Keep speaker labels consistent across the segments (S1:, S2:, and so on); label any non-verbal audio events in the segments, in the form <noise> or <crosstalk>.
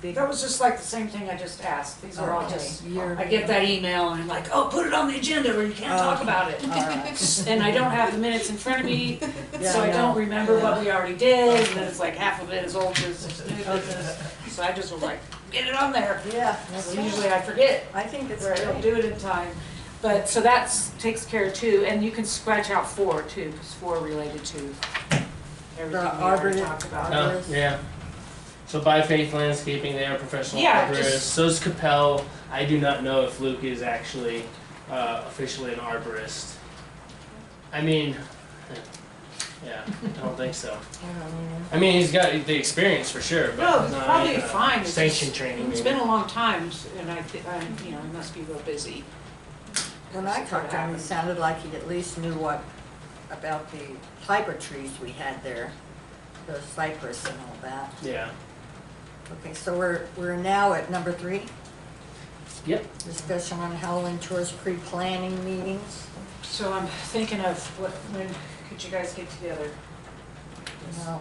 S1: big.
S2: That was just like the same thing I just asked. These are all
S1: Okay,
S2: just,
S1: you're-
S2: I get that email and I'm like, oh, put it on the agenda or you can't talk
S1: Okay.
S2: about it.
S1: All right.
S2: <laughs> And I don't have the minutes in front of me,
S1: <laughs> Yeah,
S2: so I
S1: know.
S2: don't remember what
S1: Yeah.
S2: we already did, and then it's like half of it is old business, new business. So I just was like, get it on there.
S1: Yeah, that's
S2: So
S1: usually,
S2: Usually I forget,
S1: I think it's
S2: or I don't
S1: great.
S2: do it in time. But, so that's, takes care of two, and you can scratch out four too, because four related to everything we
S1: The
S2: already
S1: arbor-
S2: talked about.
S1: Uh,
S3: Oh, yeah. So by faith landscaping, they are professional
S2: Yeah,
S3: arborists.
S2: just-
S3: So is Capel. I do not know if Luke is actually uh, officially an arborist. I mean, yeah, I don't think so. I mean, he's got the experience for sure, but
S2: No, it's
S3: not,
S2: probably
S3: uh,
S2: fine. It's
S3: Sanction
S2: just-
S3: training.
S2: It's
S3: maybe.
S2: been a long time, and I, thi- I, you know, I must be real busy.
S1: When I talked to him, it sounded like he at least knew what, about the hyper trees we had there, the cypress and all that.
S3: Yeah.
S1: Okay, so we're, we're now at number three,
S3: Yep.
S1: discussion on Howland Tours pre-planning meetings.
S2: So I'm thinking of what, when could you guys get together?
S1: No,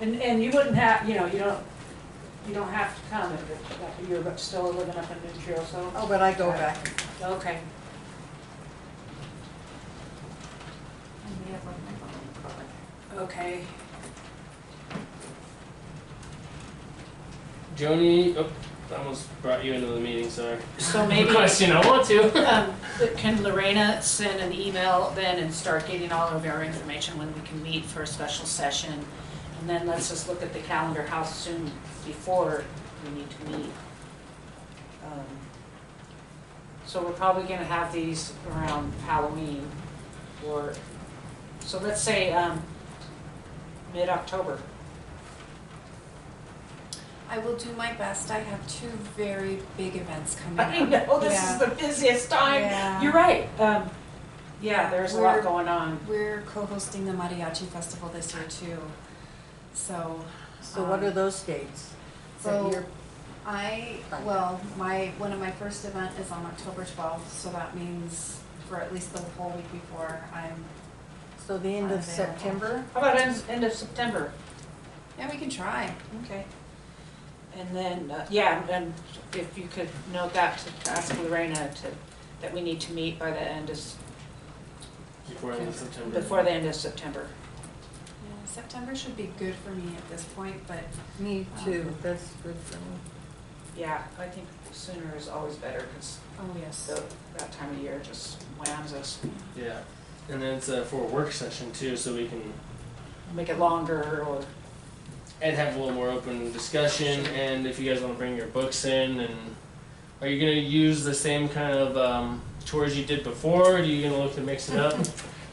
S2: And, and you wouldn't have, you know, you don't, you don't have to come if you're still living up in New Trail, so,
S1: oh, but I go back,
S2: okay. Okay.
S3: Joni, oh, I almost brought you into the meeting. Sorry.
S2: So maybe,
S3: Question. I want to.
S2: um, can Lorena send an email then and start getting all of our information when we can meet for a special session? And then let's just look at the calendar, how soon before we need to meet. Um, So we're probably gonna have these around Halloween or, so let's say, um, mid-October. <laughs>
S4: I will do my best. I have two very big events coming up. Yeah.
S2: the busiest
S4: Yeah.
S2: You're right. Um, yeah, there's a lot
S4: We're-
S2: going on.
S4: We're co-hosting the mariachi festival this year too. So um,
S1: so what are those dates? Is that
S4: So-
S1: your-
S4: I,
S1: Fine.
S4: well, my, one of my first event is on October twelfth, so that means for at least the whole week before I'm,
S1: So the end of
S4: Unavailable.
S1: September?
S2: How about end, end of September?
S4: yeah, we can try.
S2: Okay. And then, uh, yeah, and if you could note that to ask Lorena to, that we need to meet by the end of, s-
S3: Before end of September.
S2: before the end of September.
S4: Yeah, September should be good for me at this point, but
S1: Me too, Uh, that's good for me.
S2: Yeah, I think sooner is always better because
S4: oh yes.
S2: that time of year just whams us.
S3: Yeah. And then it's uh, for a work session too, so we can
S2: Make it longer or,
S3: and have a little more open discussion. And if you guys want to bring your books in, and are you going to use the same kind of um, tours you did before? Or are you going to look to mix
S1: <laughs>
S3: it up?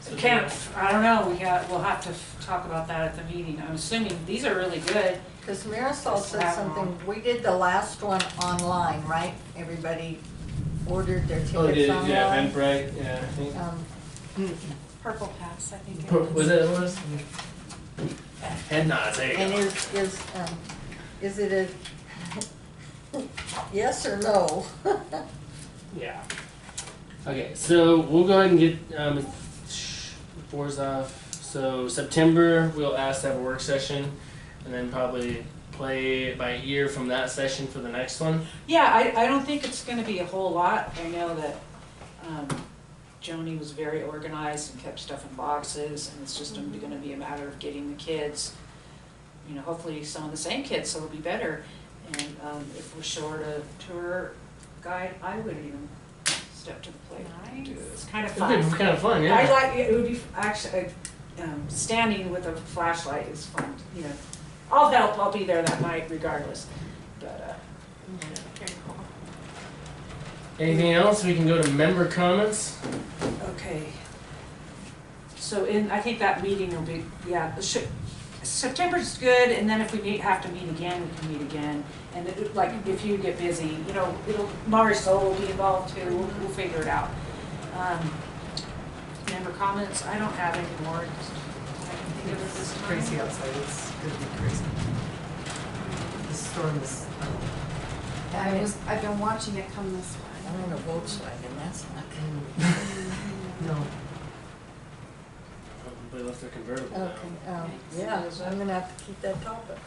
S3: So
S2: can't, I don't know, we got, we'll have to f- talk about that at the meeting. I'm assuming these are really good.
S1: Because Marisol said
S2: Wow.
S1: something, we did the last one online, right? Everybody ordered their
S3: Oh, did
S1: tickets
S3: yeah, yeah,
S1: online.
S3: Eventbrite. Yeah, I think.
S1: Um,
S4: Purple Pass, I think it
S3: Pur-
S4: was.
S3: Was that what it was? Head nods. There you
S1: And
S3: go.
S1: is, is, um, is it a <laughs> yes or no? <laughs>
S3: Yeah. Okay, so we'll go ahead and get um, sh- fours off. So September, we'll ask to have a work session, and then probably play it by ear from that session for the next one.
S2: Yeah, I, I don't think it's gonna be a whole lot. I know that, um, Joni was very organized and kept stuff in boxes, and it's just gonna be a matter of getting the kids, you know, hopefully some of the same kids, so it'll be better. And, um, if we're short a tour guide, I would even step to the plate and do it. It's kind of
S3: It'd be
S2: fun.
S3: kind of fun, yeah.
S2: I like, it would be, actually, um, standing with a flashlight is fun, you know. I'll help, I'll be there that night regardless, but, uh,
S4: Mm-hmm. Very cool.
S3: Anything else? We can go to member comments.
S2: Okay. So in, I think that meeting will be, yeah, it should- September's good, and then if we meet, have to meet again, we can meet again. And it- like, if you get busy, you know, it'll, Marisol will be involved too, we'll, we'll figure it out. Um, Member comments, I don't have any more. I can think of at this
S5: It's
S2: time.
S5: crazy outside, it's gonna be crazy. The storm is, oh,
S4: I was, I've been watching it come this way.
S1: I'm in a Volkswagen, that's not
S5: no.
S3: They Oh, left their convertible
S1: good. Okay,
S3: down.
S1: um, yeah, I'm gonna have to keep that topic.